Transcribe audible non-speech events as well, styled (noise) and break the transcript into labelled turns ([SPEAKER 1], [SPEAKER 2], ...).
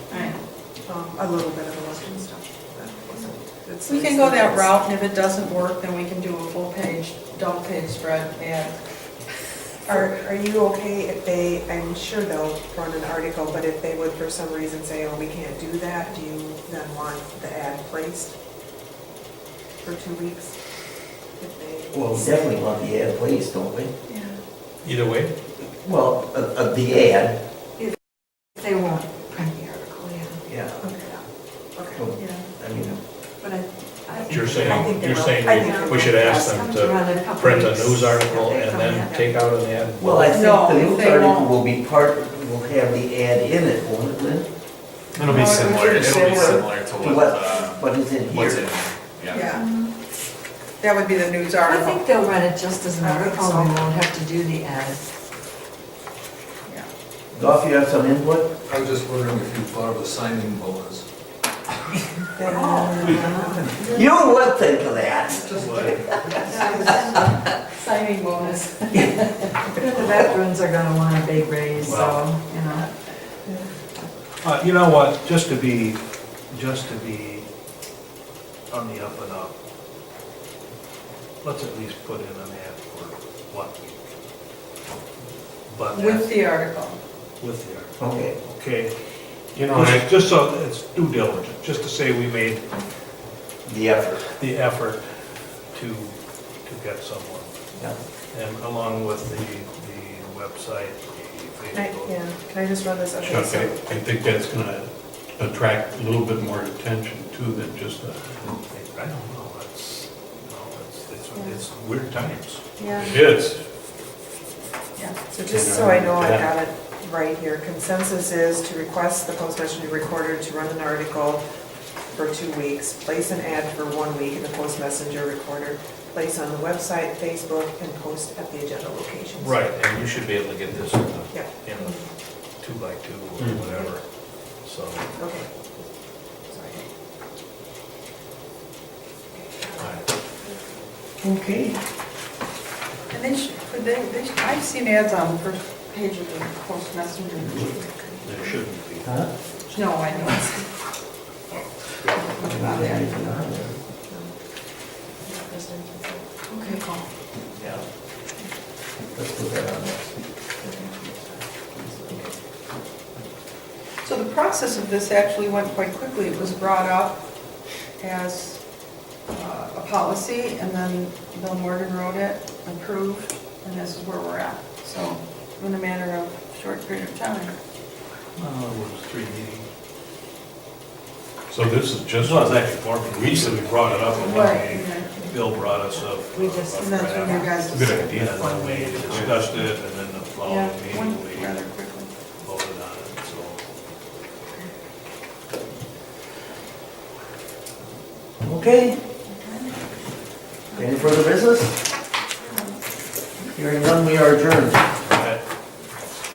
[SPEAKER 1] um, a little bit of election stuff. That wasn't- that's-
[SPEAKER 2] We can go that route, and if it doesn't work, then we can do a full-page, double-page spread ad.
[SPEAKER 1] Are, are you okay if they, I'm sure they'll run an article, but if they would for some reason say, oh, we can't do that, do you then want the ad placed for two weeks? If they-
[SPEAKER 3] Well, we definitely want the ad placed, don't we?
[SPEAKER 4] Either way,
[SPEAKER 3] Well, uh, uh, the ad,
[SPEAKER 5] They won't print the article, yeah.
[SPEAKER 3] yeah.
[SPEAKER 1] Okay, okay.
[SPEAKER 3] Well, I mean,
[SPEAKER 5] But I, I.
[SPEAKER 4] You're saying-
[SPEAKER 5] I think they
[SPEAKER 4] you're
[SPEAKER 5] will.
[SPEAKER 4] saying
[SPEAKER 5] I
[SPEAKER 4] we-
[SPEAKER 5] think
[SPEAKER 4] we should
[SPEAKER 5] they'll
[SPEAKER 4] ask them
[SPEAKER 5] come
[SPEAKER 4] to
[SPEAKER 5] run a couple
[SPEAKER 4] print a
[SPEAKER 5] weeks.
[SPEAKER 4] news article
[SPEAKER 5] They'll
[SPEAKER 4] and
[SPEAKER 5] come
[SPEAKER 4] then
[SPEAKER 5] in.
[SPEAKER 4] take out an ad.
[SPEAKER 3] well, I
[SPEAKER 2] No,
[SPEAKER 3] think the news
[SPEAKER 2] they
[SPEAKER 3] article
[SPEAKER 2] won't.
[SPEAKER 3] will be part, will have the ad in it, won't it, Lynn?
[SPEAKER 6] It'll be
[SPEAKER 2] No,
[SPEAKER 6] similar,
[SPEAKER 2] it's
[SPEAKER 6] it'll be
[SPEAKER 3] similar
[SPEAKER 6] similar to
[SPEAKER 3] To
[SPEAKER 6] what,
[SPEAKER 3] what,
[SPEAKER 6] uh,
[SPEAKER 3] what is in here?
[SPEAKER 6] what's in, yeah.
[SPEAKER 2] Yeah. That would be the news
[SPEAKER 5] I
[SPEAKER 2] article.
[SPEAKER 5] think they'll run it just as an
[SPEAKER 1] I think
[SPEAKER 5] article
[SPEAKER 1] so.
[SPEAKER 5] and won't have to do the ad.
[SPEAKER 2] Yeah.
[SPEAKER 3] Goff, you have some input?
[SPEAKER 7] I was just wondering if you thought of a signing bonus.
[SPEAKER 5] Uh,
[SPEAKER 1] Then,
[SPEAKER 3] You would think of that.
[SPEAKER 7] Just like,
[SPEAKER 5] (laughs)
[SPEAKER 2] Signing bonus.
[SPEAKER 5] The veterans are gonna want a big raise, so, you know.
[SPEAKER 8] Uh, You know what, just to be, just to be on the up and up, let's at least put in an ad for one week. But
[SPEAKER 2] With
[SPEAKER 8] that's
[SPEAKER 2] the article.
[SPEAKER 8] with the article,
[SPEAKER 3] Okay.
[SPEAKER 8] okay?
[SPEAKER 6] You know, I-
[SPEAKER 8] Just- Just so, it's due diligence, just to say we made
[SPEAKER 3] The effort.
[SPEAKER 8] the effort to, to get someone.
[SPEAKER 3] Yeah.
[SPEAKER 8] And along with the, the website, the
[SPEAKER 1] Can I,
[SPEAKER 8] Facebook.
[SPEAKER 1] yeah, can I just run this? Okay,
[SPEAKER 9] Chuck, I,
[SPEAKER 1] so-
[SPEAKER 9] I think that's gonna attract a little bit more attention too than just a,
[SPEAKER 8] I don't know, it's, no, it's, it's, it's weird times.
[SPEAKER 1] Yeah.
[SPEAKER 9] it is.
[SPEAKER 1] Yeah, so just so I know I got it right here, consensus is to request the postmaster to be recorded to run an article for two weeks, place an ad for one week in the post messenger recorder, place on the website, Facebook, and post at the agenda locations.
[SPEAKER 8] Right, and you should be able to get this in
[SPEAKER 1] Yeah.
[SPEAKER 8] a, in a two by two or whatever, so.
[SPEAKER 1] Okay. Sorry.
[SPEAKER 8] I-
[SPEAKER 3] Okay.
[SPEAKER 2] And they should, could they, they, should- I've seen ads on the first page of the Post Messenger.
[SPEAKER 8] There shouldn't be.
[SPEAKER 3] Huh?
[SPEAKER 2] No, I know. it's-
[SPEAKER 3] Not anything on there.
[SPEAKER 2] Okay, Paul.
[SPEAKER 3] Yeah. Let's put that on there.
[SPEAKER 2] So the process of this actually went quite quickly. It was brought up as uh, a policy, and then Bill Morgan wrote it, approved, and this is where we're at. So in a matter of short period of time.
[SPEAKER 8] Well, it was three meetings.
[SPEAKER 9] So this is
[SPEAKER 8] This
[SPEAKER 9] just.
[SPEAKER 8] was actually four, we recently brought it up at one
[SPEAKER 2] Right,
[SPEAKER 8] meeting.
[SPEAKER 2] yeah.
[SPEAKER 8] Bill brought us up.
[SPEAKER 5] We just-
[SPEAKER 8] up
[SPEAKER 2] And that's when you
[SPEAKER 8] draft.
[SPEAKER 2] guys
[SPEAKER 9] Good
[SPEAKER 2] decided.
[SPEAKER 8] And
[SPEAKER 9] idea.
[SPEAKER 8] then we discussed it, and then the following
[SPEAKER 2] Yeah,
[SPEAKER 8] meeting,
[SPEAKER 2] went
[SPEAKER 8] we
[SPEAKER 2] rather quickly.
[SPEAKER 8] voted on it, so.
[SPEAKER 3] Okay. Any further business? Hearing none, we are adjourned.